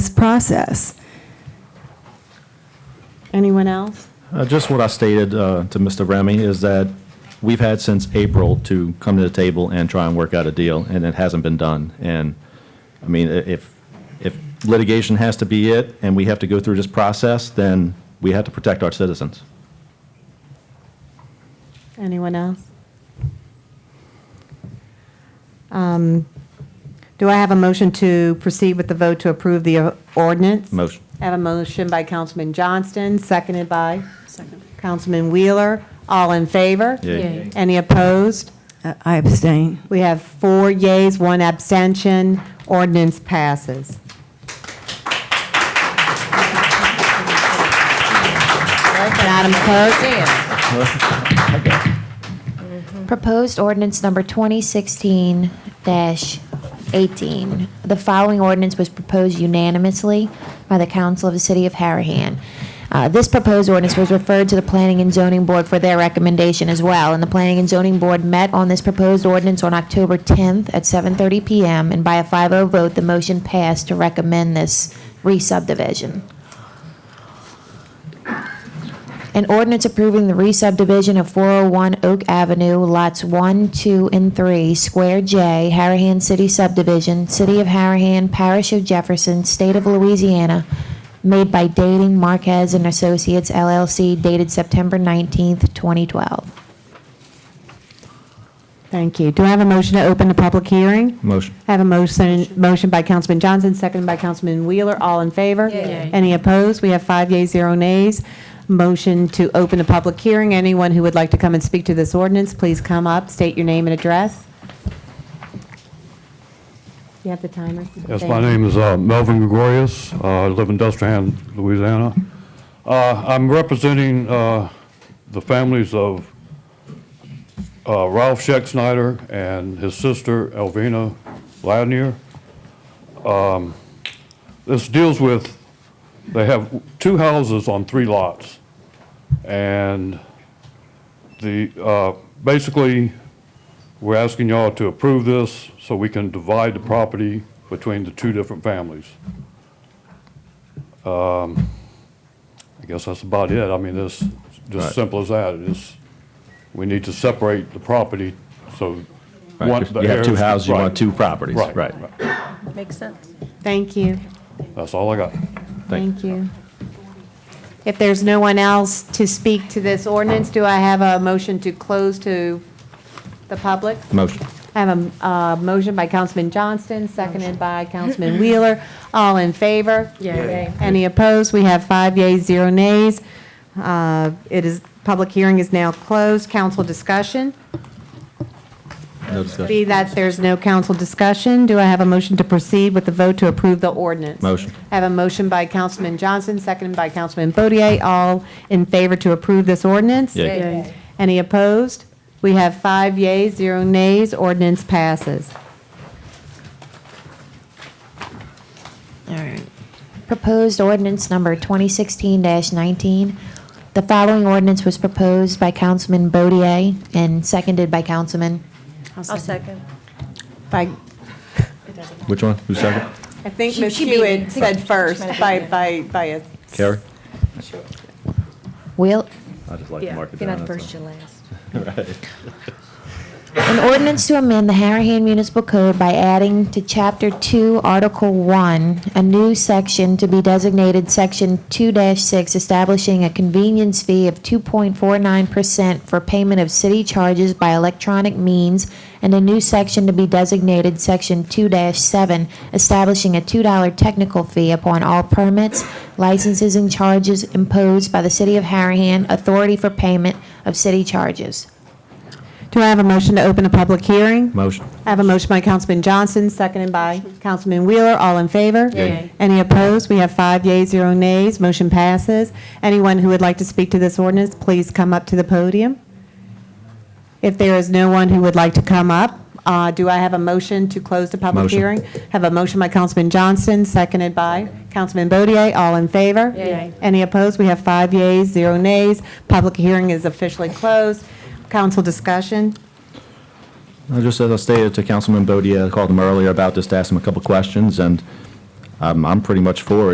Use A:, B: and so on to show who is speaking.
A: process. Anyone else?
B: Uh, Just what I stated uh, to Mr. Remy is that we've had since April to come to the table and try and work out a deal, and it hasn't been done. And, I mean, i- if, if litigation has to be it, and we have to go through this process, then we have to protect our citizens.
A: Anyone else? Um, Do I have a motion to proceed with the vote to approve the uh, ordinance?
B: Motion.
A: I have a motion by Councilman Johnston, seconded by Councilman Wheeler. All in favor?
B: Yay.
C: Yay.
A: Any opposed?
D: Uh, I abstain.
A: We have four yays, one abstention. Ordinance passes. Madam Clerk?
E: Proposed ordinance number 2016-18. The following ordinance was proposed unanimously by the council of the city of Harahan. Uh, This proposed ordinance was referred to the Planning and Zoning Board for their recommendation as well, and the Planning and Zoning Board met on this proposed ordinance on October 10th at 7:30 PM, and by a 5-0 vote, the motion passed to recommend this re-subdivision. An ordinance approving the re-subdivision of 401 Oak Avenue, lots 1, 2, and 3, Square J, Harahan City Subdivision, City of Harahan, Parish of Jefferson, State of Louisiana, made by Dating Marquez and Associates LLC, dated September 19th, 2012.
A: Thank you. Do I have a motion to open the public hearing?
B: Motion.
A: I have a motion, motion by Councilman Johnson, seconded by Councilman Wheeler. All in favor?
C: Yay.
A: Any opposed? We have five yeas, zero nays. Motion to open the public hearing. Anyone who would like to come and speak to this ordinance, please come up, state your name and address. You have the timer?
F: Yes, my name is uh, Melvin Gregorius. Uh, I live in Dustin, Louisiana. Uh, I'm representing uh, the families of uh, Ralph Scheck Snyder and his sister Elvina Ladnier. Um, This deals with, they have two houses on three lots. And the, uh, basically, we're asking y'all to approve this so we can divide the property between the two different families. Um, I guess that's about it. I mean, it's
B: Right.
F: just simple as that. It's, we need to separate the property, so. one- the
B: You have two
F: heirs-
B: houses, you
F: right,
B: want two properties.
F: Right.
B: Right.
C: Makes sense.
A: Thank you.
F: That's all I got.
A: Thank you. If there's no one else to speak to this ordinance, do I have a motion to close to the public?
B: Motion.
A: I have a uh, motion by Councilman Johnston, seconded by Councilman Wheeler. All in favor?
C: Yay.
A: Any opposed? We have five yeas, zero nays. Uh, It is, public hearing is now closed. Council discussion?
B: No discussion.
A: Be that there's no council discussion, do I have a motion to proceed with the vote to approve the ordinance?
B: Motion.
A: I have a motion by Councilman Johnson, seconded by Councilman Bodier. All in favor to approve this ordinance?
B: Yay.
C: Yay.
A: Any opposed? We have five yeas, zero nays. Ordinance passes.
E: All right. Proposed ordinance number 2016-19. The following ordinance was proposed by Councilman Bodier and seconded by Councilman
C: I'll second.
A: By,
B: Which one? Who's second?
A: I think
C: She-
A: Ms.
C: she beat me.
A: Hewitt said first by, by, by a.
B: Carrie?
E: Wheel.
B: I just like to
C: Yeah,
B: mark it
C: you're
B: down.
C: not
B: that's
C: first,
B: all.
C: you're last.
E: An ordinance to amend the Harahan Municipal Code by adding to Chapter 2, Article 1, a new section to be designated Section 2-6, establishing a convenience fee of 2.49% for payment of city charges by electronic means, and a new section to be designated Section 2-7, establishing a $2 technical fee upon all permits, licenses, and charges imposed by the city of Harahan, authority for payment of city charges.
A: Do I have a motion to open a public hearing?
B: Motion.
A: I have a motion by Councilman Johnson, seconded by Councilman Wheeler. All in favor?
C: Yay.
A: Any opposed? We have five yeas, zero nays. Motion passes. Anyone who would like to speak to this ordinance, please come up to the podium. If there is no one who would like to come up, uh, do I have a motion to close the public
B: Motion.
A: hearing? Have a motion by Councilman Johnston, seconded by Councilman Bodier. All in favor?
C: Yay.
A: Any opposed? We have five yeas, zero nays. Public hearing is officially closed. Council discussion?
B: Uh, Just as I stated to Councilman Bodier, I called him earlier about this to ask him a couple questions, and um, I'm pretty much for it.